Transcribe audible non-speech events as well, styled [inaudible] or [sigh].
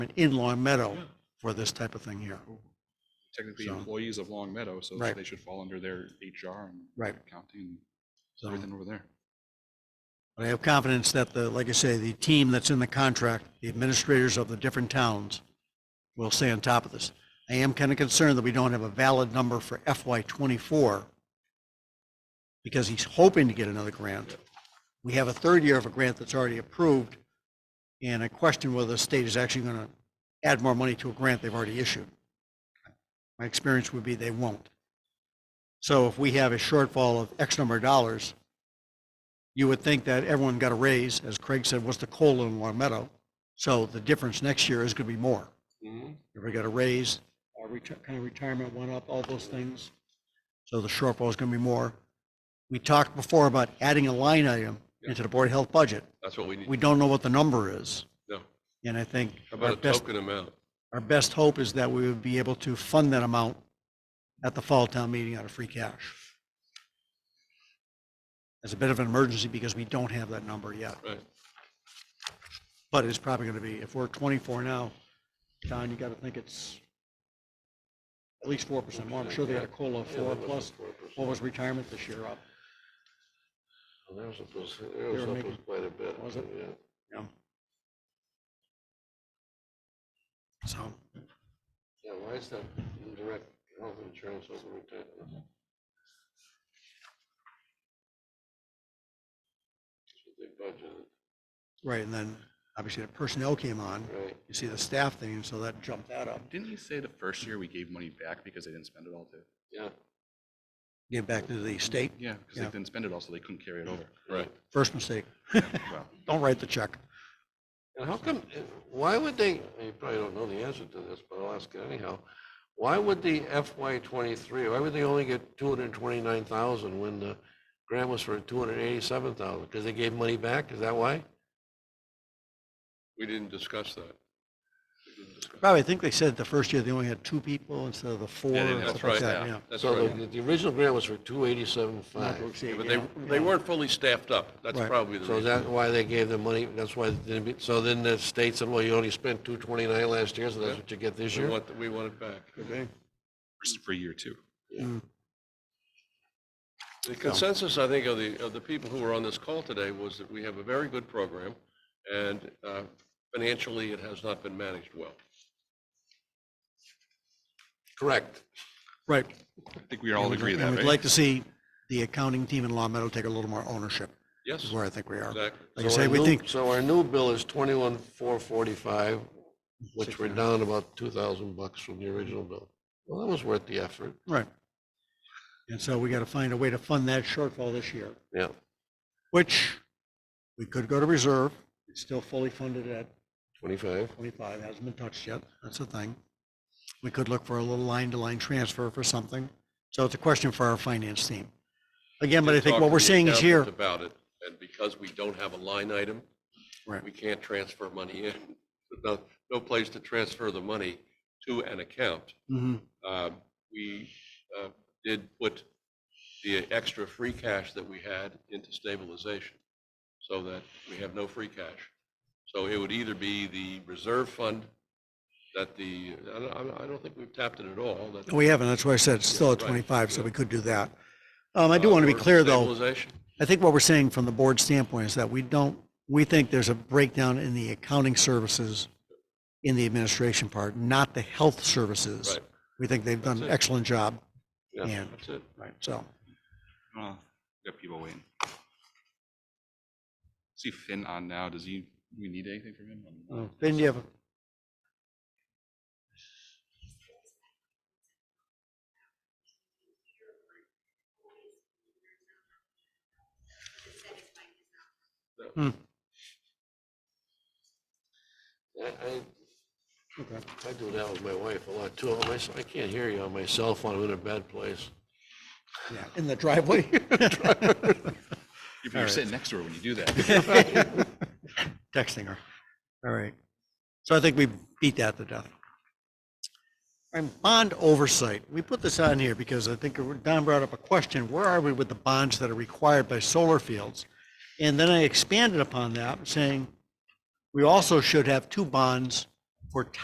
in Long Meadow for this type of thing here. technically So- employees of Long Meadow, so Right. they should fall under their HR and Right. county and So everything over there. I have confidence that the, like I say, the team that's in the contract, the administrators of the different towns will stay on top of this. I am kind of concerned that we don't have a valid number for FY twenty-four because he's hoping to get another grant. We have a third year of a grant that's already approved. And I question whether the state is actually going to add more money to a grant they've already issued. My experience would be they won't. So if we have a shortfall of X number of dollars, you would think that everyone got a raise, as Craig said, what's the COLA in Long Meadow? So the difference next year is gonna be more. Everybody got a raise, our reti- kind of retirement went up, all those things. So the shortfall is gonna be more. We talked before about adding a line item into the Board of Health budget. That's what we need. We don't know what the number is, No. and I think How our about a best, token amount? our best hope is that we would be able to fund that amount at the fall town meeting out of free cash. As a bit of an emergency because we don't have that number yet. Right. But it's probably gonna be, if we're twenty-four now, Don, you gotta think it's at least four percent more. I'm sure they had a COLA of four plus, what was retirement this year up? That was up us, They that were was up making- us quite a bit. Was it? Yeah. you know? So, Yeah, why is that indirect health insurance over retirement? That's what they right, and then obviously the personnel came on, budgeted, right? you see the staff thing, so that jumped that up. Didn't you say the first year we gave money back because they didn't spend it all too? Yeah, Get back to the state, Yeah, because they Yeah. didn't spend it all, so they couldn't carry it [laughs] over. Right. first mistake, Well, don't write the check. and how come, why would they, you probably don't know the answer to this, but I'll ask it anyhow. Why would the FY twenty-three, why would they only get two hundred and twenty-nine thousand when the grant was for two hundred and eighty-seven thousand? Because they gave money back, is that why? We didn't discuss that. We didn't discuss- Probably, I think they said the first year they only had two people instead of the four, Yeah, they and didn't have stuff like that, staff. yeah. That's So right. the, the original grant was for two eighty-seven Not to five. exceed, Yeah, But yeah, they, they yeah. weren't fully staffed up. That's Right. probably the So is reason. that why they gave the money? That's why, they didn't be- so then the state said, well, you only spent two twenty-nine last year, so that's what you get this We year? want, we want it back. This is for year two. The consensus, I think, of the, of the people who were on this call today was that we have a very good program and uh, financially, it has not been managed well. Correct. Right. I think we all agree And that, eh? We'd right? like to see the accounting team in Long Meadow take a little more ownership, is Yes, where I think we are. Like exactly. I So say, our we new- think, So our new bill is twenty-one, four forty-five, which we're down about two thousand bucks from the original bill. Well, that was worth the effort. right. And so we gotta find a way to fund that shortfall this year, Yeah. which we could go to reserve. It's still fully funded at Twenty-five. twenty-five, hasn't been touched yet, that's the thing. We could look for a little line-to-line transfer for something. So it's a question for our finance team. Again, but I think Talk what to we're the seeing is here, accountant About it, and because we don't have a line item, Right. we can't transfer money in. [laughs] There's No, no place to transfer the money to an account. Mhm, Um, We uh, did put the extra free cash that we had into stabilization so that we have no free cash. So it would either be the reserve fund that the, I don't, I don't think we've tapped it at all. that- we haven't, that's why I said it's still at right, twenty-five, so yeah. Uh, we could do that. Um, I do wanna be or clear, though. Stabilization. I think what we're saying from the board standpoint is that we don't, we think there's a breakdown in the accounting services in the administration part, not the health services. Right. We think they've done an That's it. excellent job, Yeah, And- that's it. right, so, Well, we Got people waiting. See Finn on now. Does he, do we need anything from him? uh, then you have, a- I, I, okay. I do that with my wife a lot too. My s- I can't hear you on my cell phone. I'm in a bad place. Yeah, in the [laughs] driveway. You're you're right. sitting next to her when you do that. Texting her. All right. So I think we beat that to death. And bond oversight, we put this on here because I think Don brought up a question, where are we with the bonds that are required by solar fields? And then I expanded upon that, saying we also should have two bonds for